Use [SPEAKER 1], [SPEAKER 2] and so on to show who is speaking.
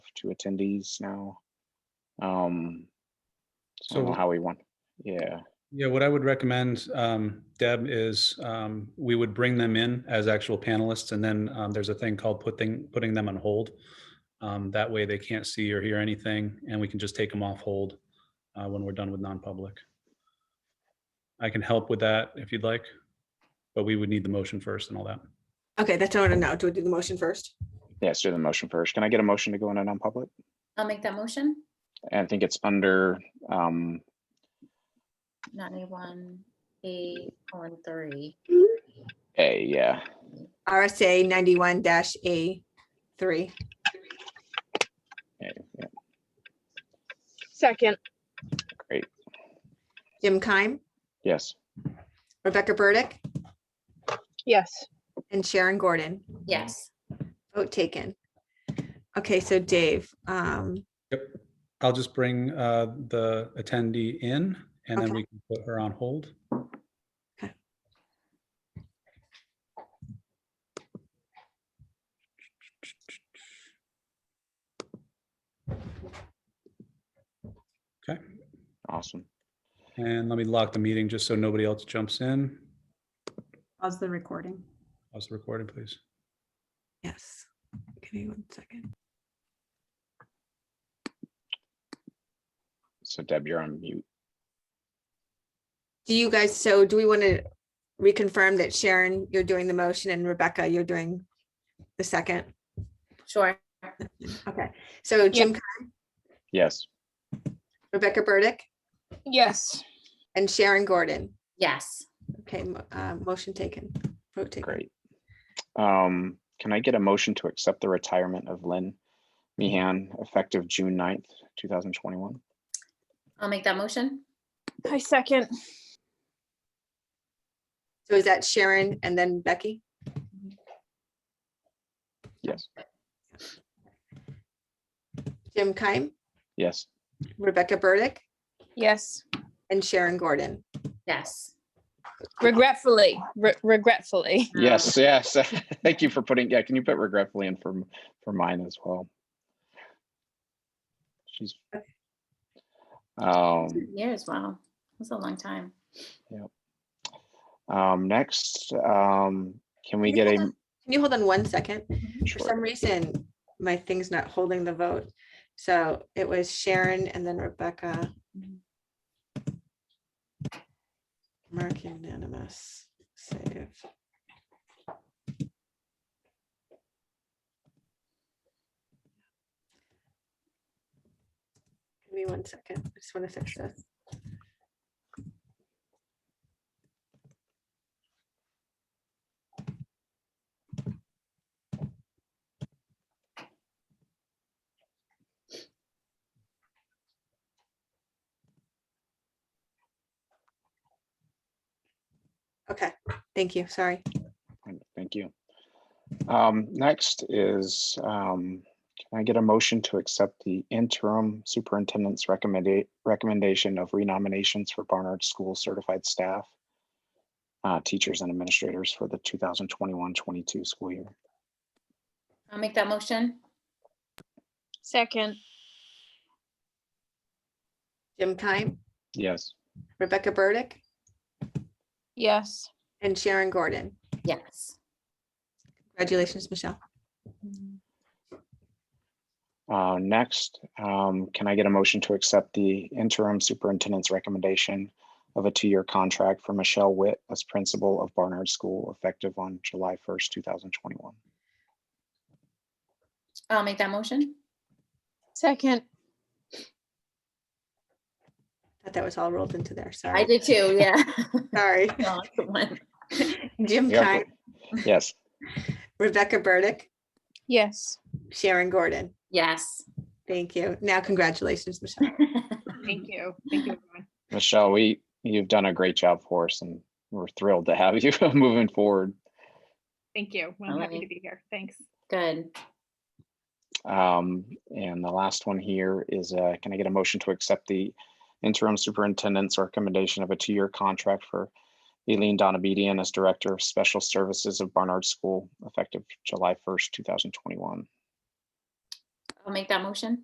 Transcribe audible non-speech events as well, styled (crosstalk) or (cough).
[SPEAKER 1] two attendees now. Um, so I don't know
[SPEAKER 2] So-
[SPEAKER 1] how we want, yeah,
[SPEAKER 2] Yeah, what I would recommend, um, Deb, is um, we would bring them in as actual panelists, and then um, there's a thing called putting, putting them on hold. Um, That way they can't see or hear anything, and we can just take them off hold uh, when we're done with non-public. I can help with that if you'd like, but we would need the motion first and all that.
[SPEAKER 3] Okay, that's what I want to know. Do we do the motion first?
[SPEAKER 1] yeah, let's do the motion first. Can I get a motion to go into non-public?
[SPEAKER 4] I'll make that motion.
[SPEAKER 1] And I think it's under, um,
[SPEAKER 4] Ninety-one, eight, one, three.
[SPEAKER 1] A, yeah.
[SPEAKER 3] RSA ninety-one dash A three.
[SPEAKER 1] A, yeah.
[SPEAKER 5] Second,
[SPEAKER 1] Great,
[SPEAKER 3] Jim Keim,
[SPEAKER 1] yes,
[SPEAKER 3] Rebecca Burdick,
[SPEAKER 5] yes.
[SPEAKER 3] and Sharon Gordon.
[SPEAKER 4] Yes,
[SPEAKER 3] Vote taken. Okay, so Dave, um,
[SPEAKER 2] Yep. I'll just bring uh, the attendee in, and then
[SPEAKER 3] Okay.
[SPEAKER 2] we can put her on hold.
[SPEAKER 1] awesome.
[SPEAKER 2] And let me lock the meeting just so nobody else jumps in.
[SPEAKER 6] Pause the recording.
[SPEAKER 2] Pause the recording, please.
[SPEAKER 3] yes. Give me one second.
[SPEAKER 1] So Deb, you're on mute.
[SPEAKER 3] Do you guys, so do we want to reconfirm that Sharon, you're doing the motion and Rebecca, you're doing the second?
[SPEAKER 4] sure.
[SPEAKER 3] Okay, so Jim, Keim,
[SPEAKER 1] Yes,
[SPEAKER 3] Rebecca Burdick,
[SPEAKER 5] Yes.
[SPEAKER 3] and Sharon Gordon.
[SPEAKER 4] Yes,
[SPEAKER 3] Okay, mo- uh, motion taken. Vote taken.
[SPEAKER 1] great. Um, can I get a motion to accept the retirement of Lynn Meehan effective June 9th, two thousand twenty-one?
[SPEAKER 4] I'll make that motion.
[SPEAKER 5] I second,
[SPEAKER 3] So is that Sharon and then Becky?
[SPEAKER 1] Yes,
[SPEAKER 3] Jim Keim,
[SPEAKER 1] yes,
[SPEAKER 3] Rebecca Burdick,
[SPEAKER 5] yes.
[SPEAKER 3] and Sharon Gordon.
[SPEAKER 4] Yes.
[SPEAKER 5] Regretfully, re- regretfully.
[SPEAKER 4] Um,
[SPEAKER 1] yes, yes. (laughs) Thank you for putting, yeah, can you put regretfully in for, m- for mine as well? She's. Um,
[SPEAKER 4] Years, wow. That's a long time.
[SPEAKER 1] um, next, um, can we
[SPEAKER 3] Can
[SPEAKER 1] get
[SPEAKER 3] you
[SPEAKER 1] a?
[SPEAKER 3] hold on- Can you hold on one second? For
[SPEAKER 1] sure.
[SPEAKER 3] some reason, my thing's not holding the vote. So it was Sharon and then Rebecca.
[SPEAKER 4] Mhm.
[SPEAKER 3] Mark unanimous, save. Give me one second. I just want to fix this. Okay, thank you. Sorry.
[SPEAKER 1] Thank- Thank you. Um, next is, um, can I get a motion to accept the interim superintendent's recommended recommendation of renominations for Barnard School certified staff? Uh, teachers and administrators for the 2021-22 school year.
[SPEAKER 4] I'll make that motion.
[SPEAKER 5] Second,
[SPEAKER 3] Jim Keim,
[SPEAKER 1] Yes,
[SPEAKER 3] Rebecca Burdick,
[SPEAKER 5] yes.
[SPEAKER 3] and Sharon Gordon.
[SPEAKER 4] Yes.
[SPEAKER 3] Congratulations, Michelle.
[SPEAKER 1] uh, next, um, can I get a motion to accept the interim superintendent's recommendation? Of a two-year contract for Michelle Witt as principal of Barnard School effective on July first, two thousand twenty-one.
[SPEAKER 4] I'll make that motion.
[SPEAKER 5] Second,
[SPEAKER 3] Thought that was all rolled into there.
[SPEAKER 4] I
[SPEAKER 3] Sorry.
[SPEAKER 4] did too, yeah. (laughs)
[SPEAKER 3] Sorry.
[SPEAKER 4] Well, good one.
[SPEAKER 3] Jim
[SPEAKER 1] Yeah.
[SPEAKER 3] Keim,
[SPEAKER 1] Yes,
[SPEAKER 3] Rebecca Burdick,
[SPEAKER 5] yes.
[SPEAKER 3] Sharon Gordon.
[SPEAKER 4] Yes. (laughs)
[SPEAKER 3] Thank you. Now, congratulations, Michelle.
[SPEAKER 5] Thank you. Thank you, everyone.
[SPEAKER 1] Michelle, we, you've done a great job for us and we're thrilled to have you (laughs) moving forward.
[SPEAKER 7] Thank you. Well,
[SPEAKER 4] All
[SPEAKER 7] I'm happy
[SPEAKER 4] right.
[SPEAKER 7] to be here. Thanks.
[SPEAKER 4] Good.
[SPEAKER 1] Um, and the last one here is, uh, can I get a motion to accept the interim superintendent's recommendation of a two-year contract for Eileen Donabedian as Director of Special Services of Barnard School effective July first, two thousand twenty-one?
[SPEAKER 4] I'll make that motion.